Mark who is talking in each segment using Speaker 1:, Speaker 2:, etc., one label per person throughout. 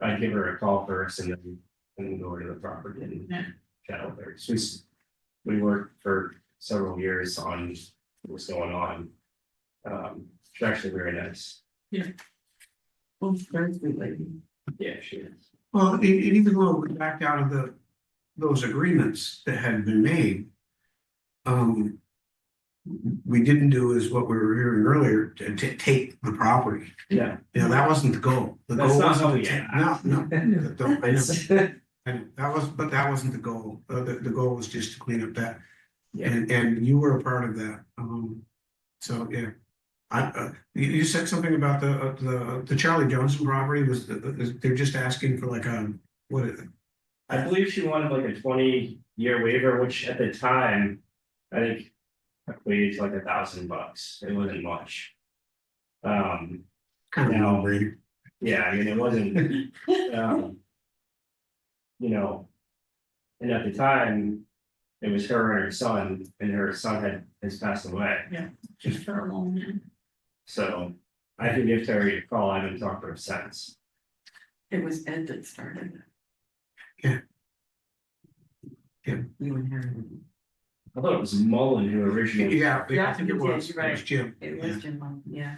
Speaker 1: I give her a call first and then, and go over to the property and chat with her, she's. We worked for several years on what's going on. Um, she's actually very nice.
Speaker 2: Oh, very good lady.
Speaker 1: Yeah, she is.
Speaker 3: Well, it, it even though we backed out of the, those agreements that had been made. Um. We didn't do is what we were hearing earlier, to, to take the property,
Speaker 1: Yeah.
Speaker 3: you know, that wasn't the goal. The
Speaker 1: That's
Speaker 3: goal
Speaker 1: not
Speaker 3: wasn't
Speaker 1: how
Speaker 3: to
Speaker 1: we
Speaker 3: take-
Speaker 1: act.
Speaker 3: No, no, don't- I know. And that was, but that wasn't the goal, uh, the, the goal was just to clean up that.
Speaker 1: Yeah.
Speaker 3: And, and you were a part of that, um, so, yeah. I, uh, you, you said something about the, uh, the, the Charlie Johnson robbery was, the- the- they're just asking for like, um, what is it?
Speaker 1: I believe she wanted like a twenty year waiver, which at the time, I think. Equated to like a thousand bucks, it wasn't much. Um,
Speaker 3: Kind of
Speaker 1: No.
Speaker 3: no-brainer.
Speaker 1: yeah, I mean, it wasn't, um. You know. And at the time, it was her and her son, and her son had, has passed away,
Speaker 2: Just for a moment.
Speaker 1: so. I can give Terry a call, I haven't talked to her since,
Speaker 2: It was Ed that started. it.
Speaker 3: Yeah. Yeah.
Speaker 2: You and Harry.
Speaker 1: I thought it was Mullen who originally.
Speaker 3: Yeah, I
Speaker 2: Yeah,
Speaker 3: think
Speaker 2: you
Speaker 3: it
Speaker 2: did,
Speaker 3: was,
Speaker 2: you're
Speaker 3: it
Speaker 2: right.
Speaker 3: was Jim.
Speaker 2: It
Speaker 3: Yeah.
Speaker 2: was Jim, Mullen, yeah.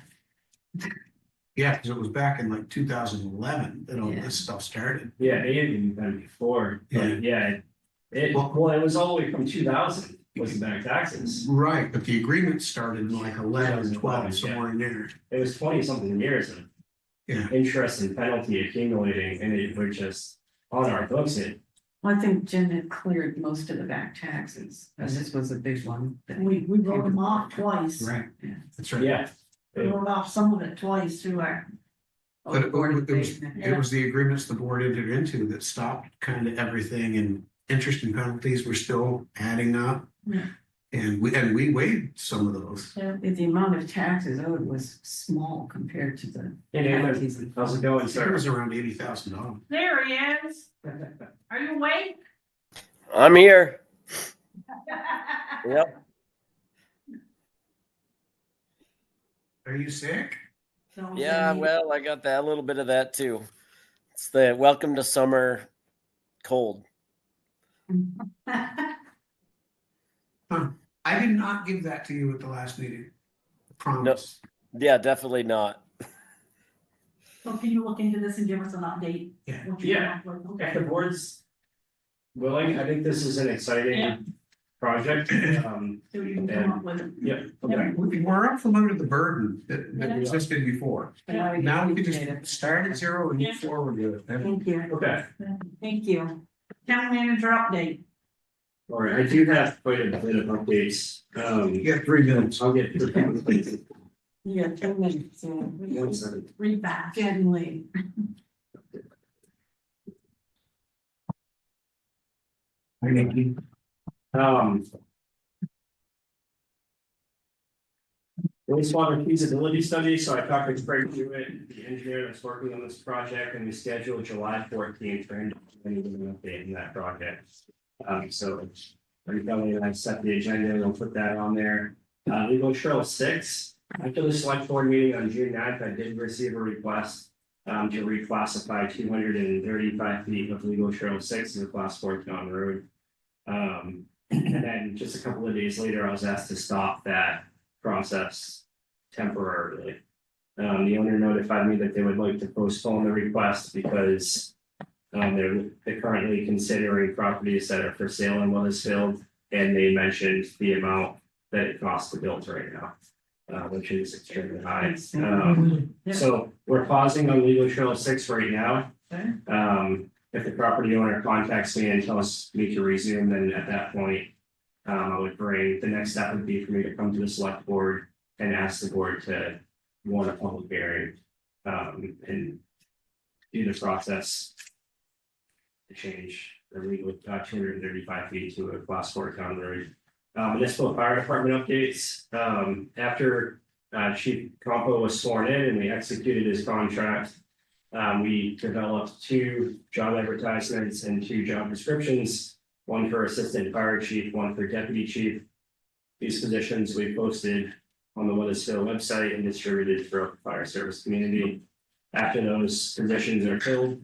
Speaker 3: Yeah, because it was back in like two thousand and eleven that all
Speaker 2: Yeah.
Speaker 3: this stuff started.
Speaker 1: Yeah, it had been done before,
Speaker 3: Yeah.
Speaker 1: but yeah, it- it,
Speaker 3: Well-
Speaker 1: well, it was all the way from two thousand, was back taxes.
Speaker 3: Right, but the agreement started in like 11, 12,
Speaker 1: 2011, yeah.
Speaker 3: somewhere in there.
Speaker 1: It was twenty something years of
Speaker 3: Yeah.
Speaker 1: interest and penalty accumulating, and it was just on our books, it,
Speaker 2: Well, I think Jim had cleared most of the back taxes, and this was a big one. that-
Speaker 4: We, we wrote them off twice,
Speaker 3: Right,
Speaker 2: Yeah.
Speaker 3: that's right.
Speaker 1: yeah.
Speaker 4: we wrote off some of it twice through our,
Speaker 2: Oh,
Speaker 3: But it-
Speaker 2: Board of
Speaker 3: it was-
Speaker 2: Adjustment.
Speaker 3: It was the agreements the board entered into that stopped kind of everything and interest and penalties were still adding up.
Speaker 4: Yeah.
Speaker 3: And we, and we waived some of those.
Speaker 4: yeah,
Speaker 2: The amount of taxes owed was small compared to the
Speaker 1: And it was,
Speaker 2: penalties. and
Speaker 1: how's it going,
Speaker 3: I think it
Speaker 1: sir?
Speaker 3: was around eighty thousand dollars.
Speaker 4: there he is, are you awake?
Speaker 5: I'm here. Yep.
Speaker 3: Are you sick?
Speaker 4: So,
Speaker 5: Yeah. Well, I got that a little bit of that too. It's the welcome to summer cold.
Speaker 3: I did not give that to you at the last meeting. Promise.
Speaker 5: Yeah, definitely not.
Speaker 4: So can you look into this and give us an update?
Speaker 3: Yeah.
Speaker 4: What you're
Speaker 1: Yeah.
Speaker 4: up with?
Speaker 1: If
Speaker 4: Okay,
Speaker 1: the board's willing, I think this is an
Speaker 4: Yeah.
Speaker 1: exciting project, um,
Speaker 4: so you can come up with it.
Speaker 1: yeah, okay.
Speaker 3: We- We're uploading the burden that, that
Speaker 4: Yeah. Oh,
Speaker 3: existed before.
Speaker 2: But now we
Speaker 3: Now we can
Speaker 2: appreciate it.
Speaker 3: just start at zero and
Speaker 4: Yeah.
Speaker 3: move forward with it.
Speaker 4: Thank you.
Speaker 1: Okay.
Speaker 4: Thank you. Town manager update,
Speaker 1: All right, I do have quite a bit of updates, um,
Speaker 3: You got three minutes.
Speaker 1: I'll get.
Speaker 2: Yeah, ten minutes, yeah.
Speaker 1: One second.
Speaker 4: read back.
Speaker 2: Getting late.
Speaker 1: Um. Wastewater feasibility study, so I talked to Craig Hewitt, the engineer that's working on this project, and we scheduled July fourteenth for him to give me an update on that project. Um, so, I'm telling you, I've set the agenda, and I'll put that on there. Uh, legal trail six, after the select board meeting on June 9th, I did receive a request. Um, to reclassify two hundred and thirty-five feet of legal trail six as a class four town road. Um, and then just a couple of days later, I was asked to stop that process temporarily. Um, the owner notified me that they would like to postpone the request because. Um, they're, they're currently considering properties that are for sale in Weathersfield, and they mentioned the amount that it costs to build right now. Uh, which is extremely high, um. So we're pausing on legal trail six right now.
Speaker 2: Okay.
Speaker 1: Um, if the property owner contacts me and tells me to resume, then at that point. Um, I would bring, the next step would be for me to come to the select board and ask the board to warn a public hearing. Um, and. Do the process. To change the legal, uh, two hundred and thirty-five feet to a class four town road. Uh, municipal fire department updates, um, after uh, Chief Compo was sworn in and we executed his contract. Um, we developed two job advertisements and two job descriptions, one for Assistant Fire Chief, one for Deputy Chief. These positions we posted on the Weathersfield website and distributed throughout the fire service community. After those positions are filled,